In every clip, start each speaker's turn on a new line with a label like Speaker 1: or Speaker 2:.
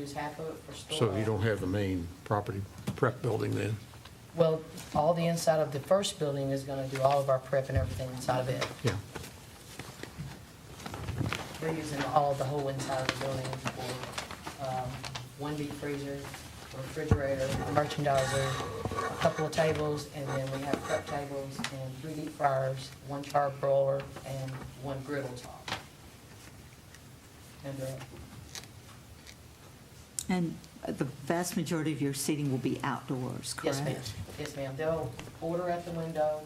Speaker 1: use half of it for storage.
Speaker 2: So you don't have the main property prep building then?
Speaker 1: Well, all the inside of the first building is gonna do all of our prep and everything inside of it.
Speaker 2: Yeah.
Speaker 1: We're using all, the whole inside of the building for, um, one deep freezer, refrigerator, merchandiser, a couple of tables, and then we have prep tables and three deep fryers, one char broiler, and one griddle top. And, uh,
Speaker 3: And the vast majority of your seating will be outdoors, correct?
Speaker 1: yes, ma'am, yes, ma'am, they'll order at the window,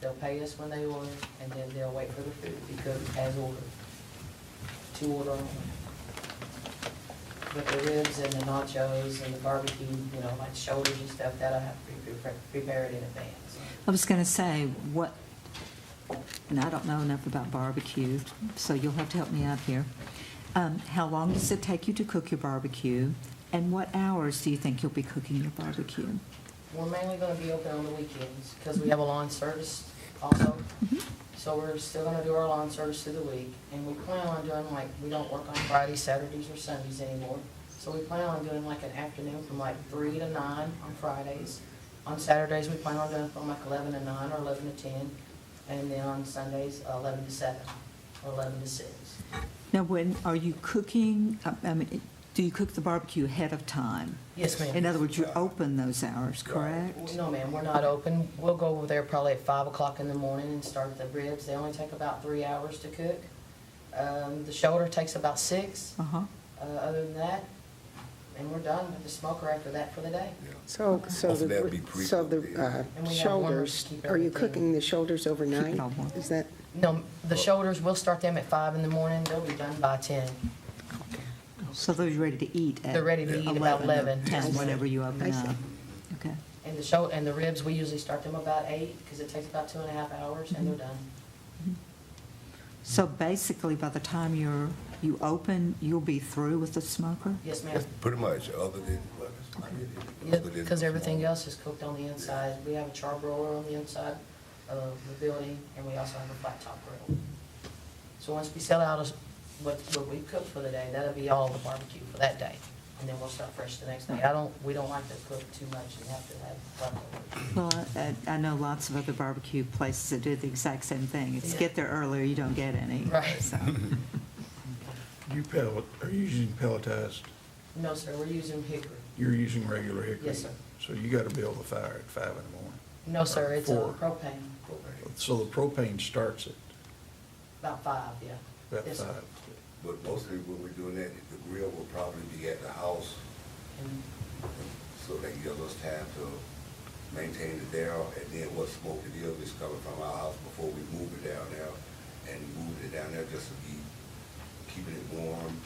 Speaker 1: they'll pay us when they order, and then they'll wait for the food because as ordered, to order only. with the ribs and the nachos and the barbecue, you know, like shoulders and stuff, that'll have to be pre- prepared in advance.
Speaker 3: I was going to say, what, and I don't know enough about barbecue, so you'll have to help me out here. Um, How long does it take you to cook your barbecue? And what hours do you think you'll be cooking your barbecue?
Speaker 1: We're mainly gonna be open on the weekends, because we have a lawn service also. So we're still gonna do our lawn service through the week, and we plan on doing like, we don't work on Fridays, Saturdays, or Sundays anymore. So we plan on doing like an afternoon from like three to nine on Fridays. On Saturdays, we plan on doing from like eleven to nine or eleven to ten, and then on Sundays, eleven to seven, or eleven to six.
Speaker 3: Now, when, are you cooking, I- I mean, do you cook the barbecue ahead of time?
Speaker 1: Yes, ma'am.
Speaker 3: In other words, you're open those hours, correct?
Speaker 1: No, ma'am, we're not open. We'll go over there probably at five o'clock in the morning and start the ribs. They only take about three hours to cook. Um, the shoulder takes about six,
Speaker 3: Uh-huh.
Speaker 1: uh, other than that, and we're done with the smoker after that for the day.
Speaker 4: So, so
Speaker 5: Hopefully that'd
Speaker 4: the,
Speaker 5: be pre-
Speaker 4: so the uh,
Speaker 1: And we have one room to
Speaker 4: shoulders,
Speaker 1: keep
Speaker 4: are you
Speaker 1: everything.
Speaker 4: cooking the shoulders overnight?
Speaker 3: all warm.
Speaker 4: Is that,
Speaker 1: No, the shoulders, we'll start them at five in the morning. They'll be done by ten.
Speaker 3: So those are ready to eat at?
Speaker 1: They're ready to eat about 11.
Speaker 3: 10, whenever you
Speaker 4: I
Speaker 3: open
Speaker 4: see.
Speaker 3: up. Okay.
Speaker 1: And the shoul, and the ribs, we usually start them about eight, because it takes about two and a half hours, and they're done.
Speaker 3: So basically, by the time you're, you open, you'll be through with the smoker?
Speaker 1: Yes, ma'am.
Speaker 5: That's pretty much, other than, well, it's not really-
Speaker 1: Yep,
Speaker 5: other than-
Speaker 1: because everything else is cooked on the inside. We have a char broiler on the inside of the building, and we also have a flat top grill. So once we sell out us- what, what we cook for the day, that'll be all the barbecue for that day. And then we'll start fresh the next day. I don't, we don't like to cook too much and have to have leftovers.
Speaker 3: Well, I, I know lots of other barbecue places that do the exact same thing. It's get there earlier, you don't get any.
Speaker 1: Right.
Speaker 3: So,
Speaker 6: You pellet, are you using pelletized?
Speaker 1: No, sir, we're using hickory.
Speaker 6: You're using regular hickory?
Speaker 1: Yes, sir.
Speaker 6: So you gotta build the fire at five in the morning.
Speaker 1: No, sir, it's a
Speaker 6: Four.
Speaker 1: propane,
Speaker 6: So the propane starts at
Speaker 1: about five, yeah.
Speaker 6: about
Speaker 1: Yes, sir.
Speaker 6: five.
Speaker 5: But mostly when we're doing that, the grill will probably be at the house,
Speaker 1: And
Speaker 5: so that gives us time to maintain the barrel, and then what smoke it is, is coming from our house before we move it down there, and move it down there just to be, keeping it warm.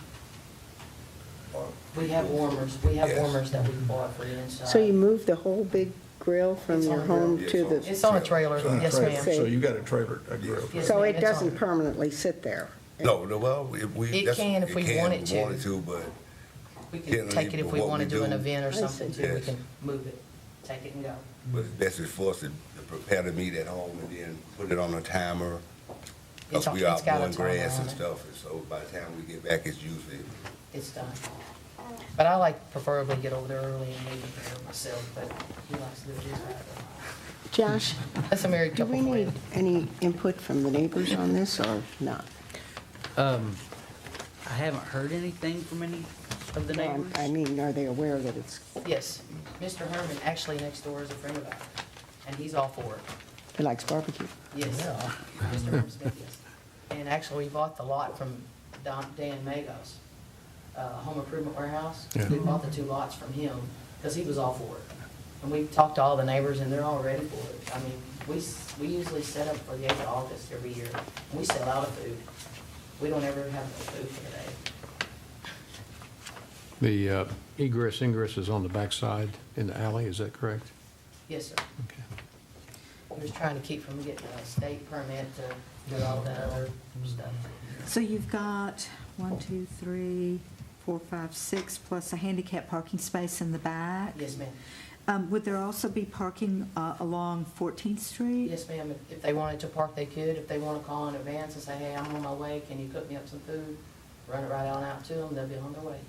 Speaker 5: or-
Speaker 1: We have warmers, we have
Speaker 5: Yes.
Speaker 1: warmers that we bought for the inside.
Speaker 4: so you move the whole big grill from
Speaker 1: Uh, It's
Speaker 4: your
Speaker 1: on the grill.
Speaker 4: home
Speaker 5: Yeah,
Speaker 4: to
Speaker 5: it's
Speaker 4: the,
Speaker 1: It's on a trailer,
Speaker 6: So you
Speaker 1: yes,
Speaker 6: trailer-
Speaker 1: ma'am.
Speaker 6: So you got a trailer, a grill.
Speaker 1: Yes,
Speaker 4: so
Speaker 1: ma'am, it's
Speaker 4: it
Speaker 1: on
Speaker 4: doesn't
Speaker 1: the-
Speaker 4: permanently sit there?
Speaker 5: No, no, well, we, we.
Speaker 1: It
Speaker 5: that's-
Speaker 1: can if we
Speaker 5: can
Speaker 1: want it
Speaker 5: if we
Speaker 1: to.
Speaker 5: Wanted to, but
Speaker 1: We can take it if we
Speaker 5: What
Speaker 1: want to
Speaker 5: we
Speaker 1: do an
Speaker 5: do.
Speaker 1: event or
Speaker 4: I see.
Speaker 1: something too, we
Speaker 5: Yes.
Speaker 1: can move it, take it and go.
Speaker 5: But it's best is for us to to prepare the meat at home and then put it on a timer.
Speaker 1: It's
Speaker 5: Cause
Speaker 1: on-
Speaker 5: we
Speaker 1: it's
Speaker 5: out
Speaker 1: got a
Speaker 5: mowing
Speaker 1: timer
Speaker 5: grass
Speaker 1: on
Speaker 5: and
Speaker 1: it.
Speaker 5: stuff, and so by the time we get back, it's usually,
Speaker 1: It's done. But I like preferably get over there early and leave it there myself, but he likes to do it his way.
Speaker 4: Josh,
Speaker 1: That's a married
Speaker 4: do
Speaker 1: couple
Speaker 4: we
Speaker 1: plan.
Speaker 4: need any input from the neighbors on this or not?
Speaker 7: I haven't heard anything from any of the neighbors.
Speaker 4: Um, I mean, are they aware that it's
Speaker 1: Yes, Mr. Herman, actually next door is a friend of ours, and he's all for it.
Speaker 4: He likes barbecue.
Speaker 1: Yes. Mr. Herman Smith, yes. And actually, we bought the lot from Don- Dan Magos, uh, Home Improvement Warehouse.
Speaker 2: Yeah.
Speaker 1: We bought the two lots from him, because he was all for it. And we talked to all the neighbors, and they're all ready for it. I mean, we, s- we usually set up for the 8th of August every year, and we sell out of food. We don't ever have no food for the day.
Speaker 2: The uh, egress ingress is on the backside in the alley, is that correct?
Speaker 1: Yes, sir.
Speaker 2: Okay.
Speaker 1: We're just trying to keep from getting a state permit to do all that other stuff.
Speaker 3: so you've got one, two, three, four, five, six, plus a handicap parking space in the back?
Speaker 1: Yes, ma'am.
Speaker 3: Um, would there also be parking, uh, along 14th Street?
Speaker 1: Yes, ma'am, If- if they wanted to park, they could, if they want to call in advance and say, hey, I'm on my way, can you cook me up some food? Run it right on out to them, they'll be on their way.